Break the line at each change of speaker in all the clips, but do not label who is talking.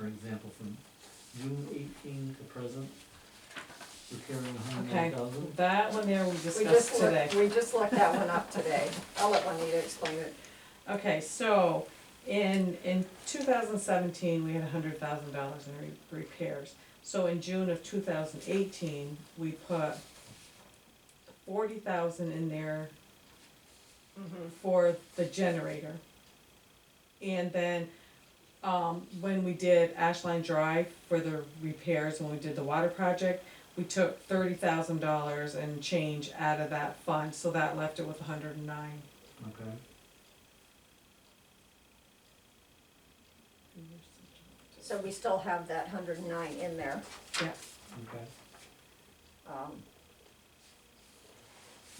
from June eighteen to present, we're carrying a hundred
Okay.
and thousand.
That one there we
We
discussed
just
today.
looked, we just looked that one up today. I'll let Juanita explain it.
Okay, so in, in two thousand seventeen, we had hundred thousand dollars in re- repairs. So in June of two thousand eighteen, we put forty thousand in there for the generator. And then, um, when we did Ashline Drive for the repairs, when we did the water project, we took thirty thousand dollars and change out of that fund, so that left it with hundred and nine.
Okay,
So we still have that hundred and nine in there.
okay.
um,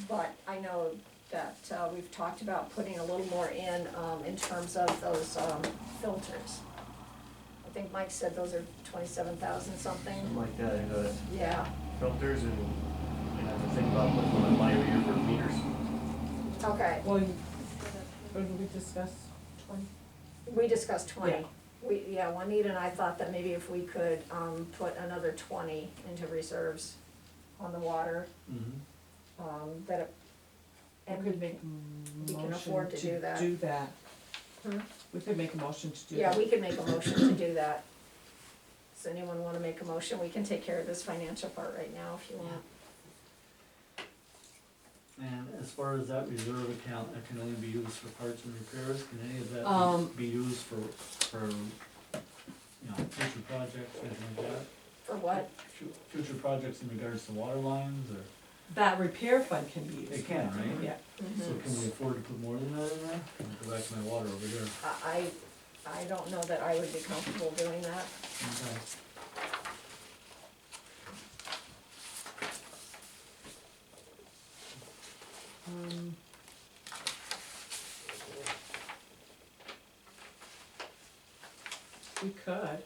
But I know that uh, we've talked about putting a little more in, um, in terms of those um, filters. I think Mike said those are twenty-seven thousand something.
Something like that, I know that
Yeah,
filters and, and I have to think about putting one in my ear for meters.
okay.
Well, you- what did we discuss? Twenty?
We discussed
Yeah.
twenty. We, yeah, Juanita and I thought that maybe if we could, um, put another twenty into reserves on the water,
Mm-hmm.
um, that it. And
We could make
we
a
can afford
motion
to do
to
that.
do that.
Hmm?
We could make a motion to do that.
Yeah, we could make a motion to do that. Does anyone wanna make a motion? We can take care of this financial part right now if you want.
And as far as that reserve account, that can only be used for parts and repairs, can any of
Um,
that be- be used for, for, you know, future projects, things like that?
For what?
Fu- Future projects in regards to water lines, or,
That repair fund can be used.
it can, right?
Yeah,
So can we afford to put more than that in there? Can I Go back to my water over here.
I, I I don't know that I would be comfortable doing that.
Okay.
um. We could.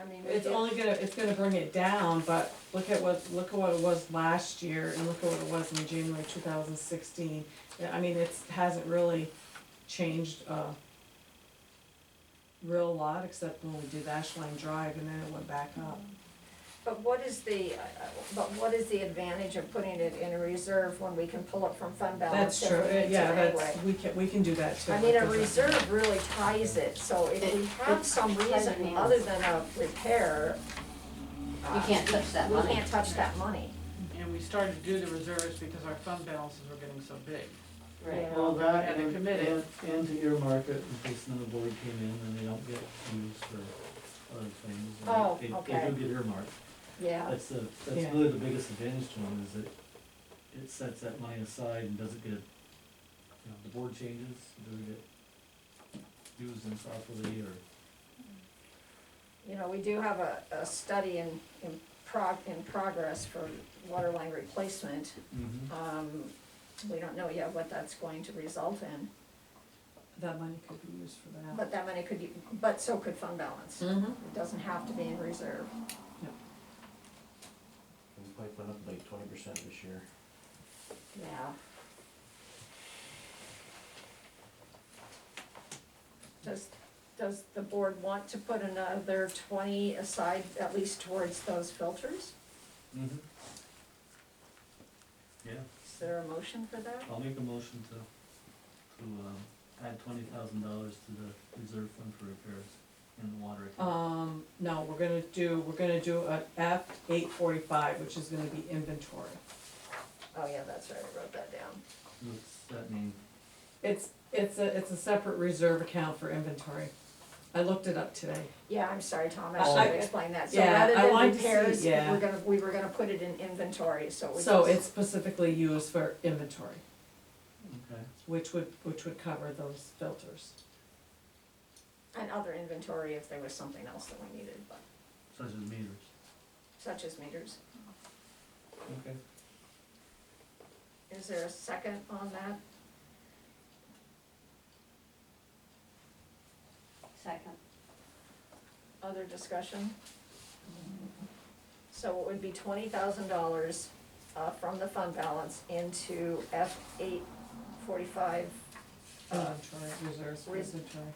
I mean, we
It's
did-
only gonna, it's gonna bring it down, but look at what, look at what it was last year and look at what it was in January two thousand sixteen. I mean, it's, hasn't really changed a real lot, except when we did Ashline Drive and then it went back up.
But what is the, uh, but what is the advantage of putting it in a reserve when we can pull it from fund balance
That's
if
true,
we need to anyway?
yeah, that's, we can, we can do that too.
I mean, a
Doesn't-
reserve really ties it, so if we have some reason other than a repair.
You can't touch that money.
We can't touch that money.
And we started to do the reserves because our fund balances were getting so big.
Right.
Yeah.
Well, that
And
and, and,
committed.
and to earmark it in case another board came in and they don't get used for other things. and
Oh,
they-
okay.
They do get earmarked.
Yeah,
That's the, that's
Yeah.
really the biggest advantage to them is that it sets that money aside and doesn't get, you know, the board changes, it doesn't get used improperly or.
you know, we do have a, a study in, in prog, in progress for water line replacement. Um, we don't know yet what that's going to result in,
That money could be used for that.
but that money could, be- but so could fund balance.
Mm-hmm.
It doesn't have to be in reserve.
This pipe went up like twenty percent this year.
Yeah. Does, does the board want to put another twenty aside, at least towards those filters?
Mm-hmm. Yeah,
Is there a motion for that?
I'll make a motion to, to, um, add twenty thousand dollars to the reserve fund for repairs in the water account.
Um, no, we're gonna do, we're gonna do a F eight forty-five, which is gonna be inventory.
Oh, yeah, that's right, I wrote that down.
What's that mean?
It's, it's a, it's a separate reserve account for inventory. I looked it up today.
Yeah, I'm sorry, Tom, I
I-
should
I-
have explained that. So
Oh. yeah,
rather
I
than
wanted to see-
repairs,
yeah.
we're gonna, we were gonna put it in inventory, so we just.
So it's specifically used for inventory,
Okay.
which would, which would cover those filters.
And other inventory if there was something else that we needed, but,
Such as meters.
such as meters.
Okay.
Is there a second on that?
Second.
Other discussion? So it would be twenty thousand dollars, uh, from the fund balance into F eight forty-five, uh, Oh.
Inventory, reserves, for
Res-
inventory.